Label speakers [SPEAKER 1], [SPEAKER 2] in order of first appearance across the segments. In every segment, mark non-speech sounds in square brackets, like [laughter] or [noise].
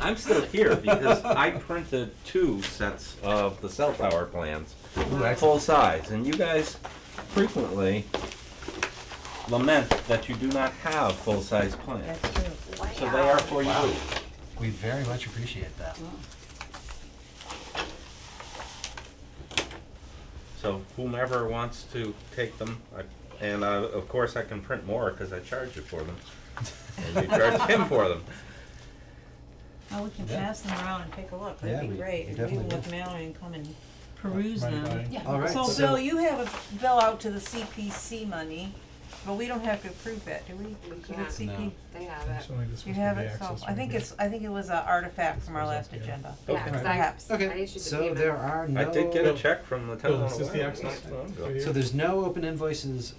[SPEAKER 1] I'm still here because I printed two sets of the cell tower plans, full size, and you guys frequently lament that you do not have full size plans.
[SPEAKER 2] That's true.
[SPEAKER 1] So they are for you.
[SPEAKER 3] We very much appreciate that.
[SPEAKER 1] So whomever wants to take them, I- and uh, of course I can print more because I charge you for them. And you charge him for them.
[SPEAKER 2] Oh, we can
[SPEAKER 3] Yeah.
[SPEAKER 2] pass them around and take a look,
[SPEAKER 3] Yeah,
[SPEAKER 2] that'd
[SPEAKER 3] we-
[SPEAKER 2] be great,
[SPEAKER 3] we
[SPEAKER 2] if we
[SPEAKER 3] definitely
[SPEAKER 2] will
[SPEAKER 3] do.
[SPEAKER 2] with Mallory and come and peruse them.
[SPEAKER 4] Yeah.
[SPEAKER 3] All right.
[SPEAKER 2] So Bill, you have a bill out to the CPC money, but we don't have to approve that, do we?
[SPEAKER 4] We
[SPEAKER 2] Is it
[SPEAKER 4] can't.
[SPEAKER 2] CP?
[SPEAKER 5] No.
[SPEAKER 4] They have it.
[SPEAKER 5] Actually, this
[SPEAKER 2] You
[SPEAKER 5] was
[SPEAKER 2] have
[SPEAKER 5] the
[SPEAKER 2] it, so,
[SPEAKER 5] access
[SPEAKER 2] I
[SPEAKER 5] right
[SPEAKER 2] think
[SPEAKER 5] here.
[SPEAKER 2] it's, I think it was an artifact from our
[SPEAKER 5] This was
[SPEAKER 2] last
[SPEAKER 5] up here.
[SPEAKER 2] agenda,
[SPEAKER 4] Yeah,
[SPEAKER 1] Okay.
[SPEAKER 4] 'cause
[SPEAKER 2] perhaps.
[SPEAKER 4] I,
[SPEAKER 3] [laughs]
[SPEAKER 4] I
[SPEAKER 3] Okay,
[SPEAKER 4] issued the
[SPEAKER 3] so
[SPEAKER 4] payment.
[SPEAKER 3] there are no.
[SPEAKER 1] I did get a check from the town
[SPEAKER 5] Bill,
[SPEAKER 1] of
[SPEAKER 5] is Oh, this the
[SPEAKER 1] Wyoming.
[SPEAKER 5] access?
[SPEAKER 1] Yeah.
[SPEAKER 5] Right
[SPEAKER 3] So
[SPEAKER 5] here?
[SPEAKER 3] there's no open invoices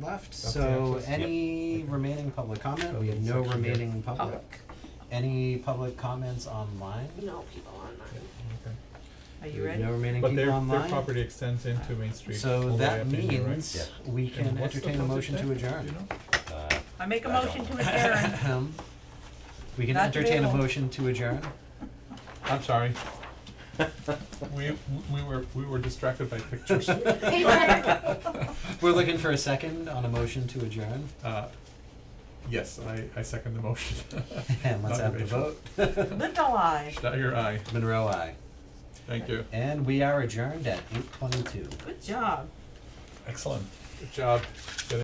[SPEAKER 3] left,
[SPEAKER 5] That's the
[SPEAKER 3] so
[SPEAKER 5] access. Yep.
[SPEAKER 3] any remaining public comment, we have no
[SPEAKER 5] Section here.
[SPEAKER 3] remaining public. Any public comments online?
[SPEAKER 4] No people online.
[SPEAKER 3] [laughs]
[SPEAKER 2] Are
[SPEAKER 5] Okay.
[SPEAKER 3] We
[SPEAKER 2] you
[SPEAKER 3] have
[SPEAKER 2] ready?
[SPEAKER 3] No remaining
[SPEAKER 5] But
[SPEAKER 3] people
[SPEAKER 5] their, their
[SPEAKER 3] online,
[SPEAKER 5] property extends into Main Street. all
[SPEAKER 3] so
[SPEAKER 5] the way
[SPEAKER 3] that
[SPEAKER 5] up in here, right?
[SPEAKER 3] means we
[SPEAKER 5] And
[SPEAKER 3] can
[SPEAKER 5] what's the
[SPEAKER 3] entertain a
[SPEAKER 5] budget
[SPEAKER 3] motion
[SPEAKER 5] there?
[SPEAKER 3] to
[SPEAKER 5] Do you
[SPEAKER 3] adjourn.
[SPEAKER 5] know?
[SPEAKER 1] Uh,
[SPEAKER 2] I make a
[SPEAKER 1] I
[SPEAKER 2] motion to adjourn.
[SPEAKER 3] [laughs] Ahem. We can
[SPEAKER 2] Not
[SPEAKER 3] entertain a
[SPEAKER 2] available.
[SPEAKER 3] motion to adjourn.
[SPEAKER 5] I'm sorry. We, we were, we were distracted
[SPEAKER 3] [laughs]
[SPEAKER 5] by pictures. Uh,
[SPEAKER 4] Paper.
[SPEAKER 3] We're looking for a second on a motion to adjourn, [laughs]
[SPEAKER 5] Uh, Yes, I, I second the motion.
[SPEAKER 3] and let's have the
[SPEAKER 5] Dr.
[SPEAKER 3] vote.
[SPEAKER 2] Lived alive.
[SPEAKER 5] Dagger, aye.
[SPEAKER 3] Monroe, I.
[SPEAKER 5] Thank you.
[SPEAKER 3] And we are adjourned at eight twenty-two.
[SPEAKER 2] Good job.
[SPEAKER 5] Excellent. Good job. Good